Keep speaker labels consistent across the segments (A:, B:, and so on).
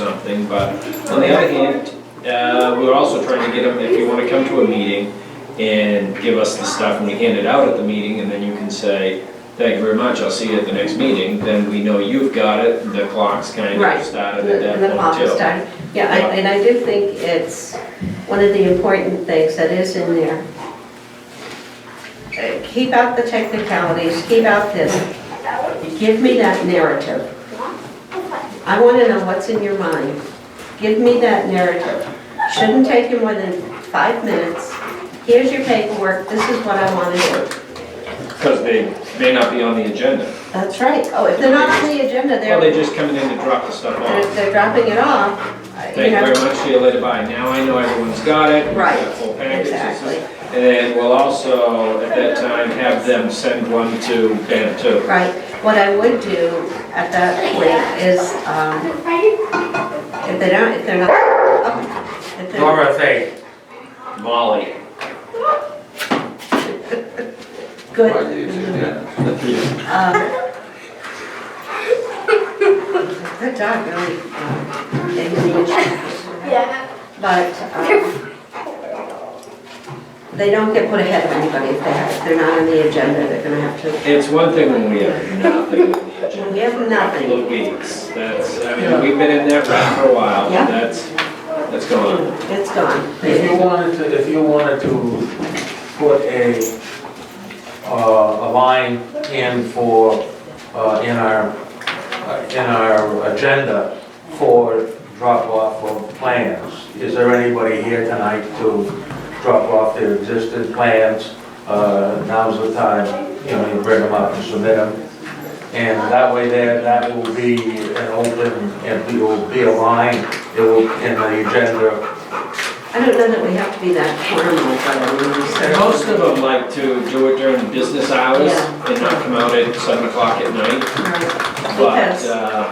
A: something, but on the other hand, uh, we're also trying to get them, if you wanna come to a meeting and give us the stuff and we hand it out at the meeting, and then you can say, thank you very much, I'll see you at the next meeting, then we know you've got it, the clock's kind
B: Right.
A: of started at
B: And the
A: that
B: clock
A: point
B: is
A: too.
B: done. Yeah, I- and I do think it's one of the important things that is in there. Uh, Keep out the technicalities, keep out this. Give me that narrative. I want to know what's in your mind. Give me that narrative. Shouldn't take you more than five minutes. Here's your paperwork, this is what I want to do.
A: Because they may not be on the agenda.
B: That's right. Oh, if they're not on the agenda,
A: Well,
B: they're,
A: they're just coming in to drop the stuff
B: they're
A: off.
B: they're dropping it off. uh, you
A: Thank you
B: know.
A: very much, see you later, bye. Now I know everyone's got it. we've got
B: Right,
A: Full packages.
B: exactly.
A: And then we'll also, at that time, have them send one to Ben too.
B: Right, what I would do at that point is, um, if they don't, if they're not, oh, if they're,
C: Dorothy,
A: Molly.
B: good, um. That dog really, um, they need to-
D: Yeah.
B: but, um, they don't get put ahead of anybody if they have, if they're not on the agenda, they're gonna have to,
A: It's one thing when we have nothing on the
B: when we
A: agenda.
B: have nothing.
A: Little weeks, that's, I mean, we've been in that rut for a while,
B: Yeah.
A: that's, that's going on.
B: It's gone.
C: if you wanted to, if you wanted to put a, uh, a line in for, uh, in our, uh, in our agenda for drop-off of plans, is there anybody here tonight to drop off their existing plans? Uh, Now's the time, you know, you bring them up and submit them. And that way there, that will be an open, and it will be a line, it will, in the agenda
B: I don't know that we have to be that formal, but I mean,
A: And
B: so.
A: most of them like to do it during business hours
B: Yeah.
A: and not come out at seven o'clock at night. But,
B: Because,
A: uh,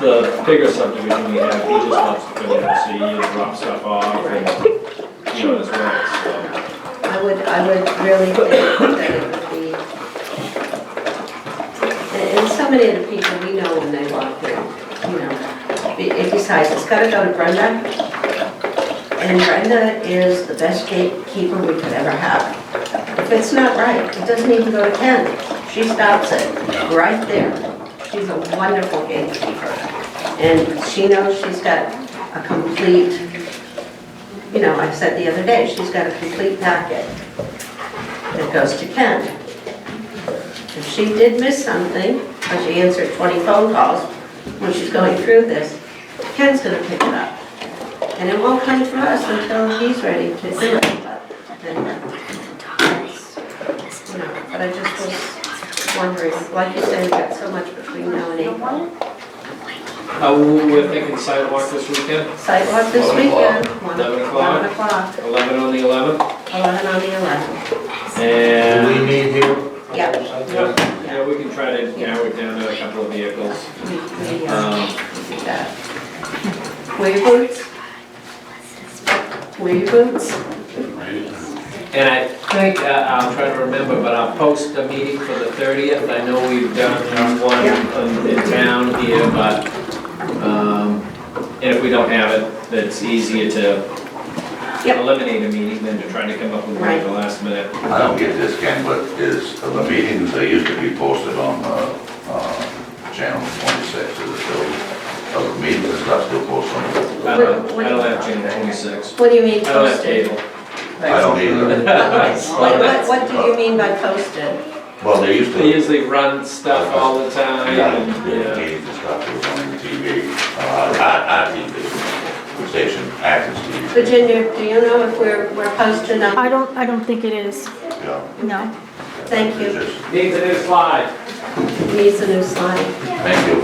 A: the bigger subdivision we have, he just loves to go in and see and drop stuff off and, you know, as well,
B: I would, I would really think that it would be, and and so many of the people we know when they walk in, you know, be- and besides, it's gotta go to Brenda. And Brenda is the best gatekeeper we could ever have. If it's not right, it doesn't even go to Ken. She stops it right there. She's a wonderful gatekeeper. And she knows she's got a complete you know, I said the other day, she's got a complete packet that goes to Ken. If she did miss something, or she answered 20 phone calls when she's going through this, Ken's gonna pick it up. And it won't come to us until he's ready to do it. But anyway, that's, you know, But I just was wondering, like you said, we've got so much between now and April.
A: so. Uh, we we're thinking sidewalk this weekend,
B: Sidewalk this
A: Eleven o'clock.
B: weekend, one
A: Eleven o'clock.
B: one o'clock,
A: eleven on the eleventh,
B: 11 on the 11th.
C: Do we
A: and,
C: need here?
B: Yeah.
A: yeah, yeah, we can try to narrow it down to a couple of vehicles.
B: We- we, uh,
A: Um,
B: that. Wear your boots. Wear your boots.
A: And I think, uh, I'll try to remember, but I'll post a meeting for the 30th. I know we've done one um, in town here, but, um, and if we don't have it, it's easier to
B: Yep.
A: eliminate a meeting than to try to come up with one at the last minute.
E: I don't get this, Ken, but is, the meetings, they used to be posted on, uh, uh, channel twenty-six, is it still? Are the meetings and stuff still posted on?
A: I don't, I don't have June 26.
B: What do you mean
A: I don't have
B: posted?
A: table.
E: I don't either.
B: What, what, what do you mean by posted?
E: Well, they used to.
A: They usually run stuff all the time and,
E: Yeah,
A: yeah.
E: meetings and stuff was on the TV, uh, our, our TV station, Athens TV.
B: Virginia, do you know if we're, we're posted
F: I
B: on?
F: don't, I don't think it is,
E: Yeah.
F: no.
B: Thank you.
E: Just-
A: Needs a new slide.
B: Needs a new slide.
E: Thank you.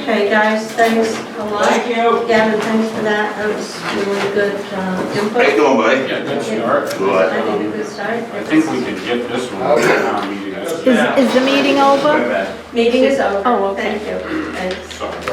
B: Okay, guys, thanks a lot.
A: Thank you.
B: Gavin, thanks for that. That was really good uh,
E: How you
B: input.
E: doing, buddy?
G: Yeah, good start.
E: Good.
B: I think a good start.
G: I think we can get this one. uh, meeting.
F: Is, is the meeting over?
B: Meeting is over.
F: Oh, okay.
B: Thank you. Thanks.
G: Sorry.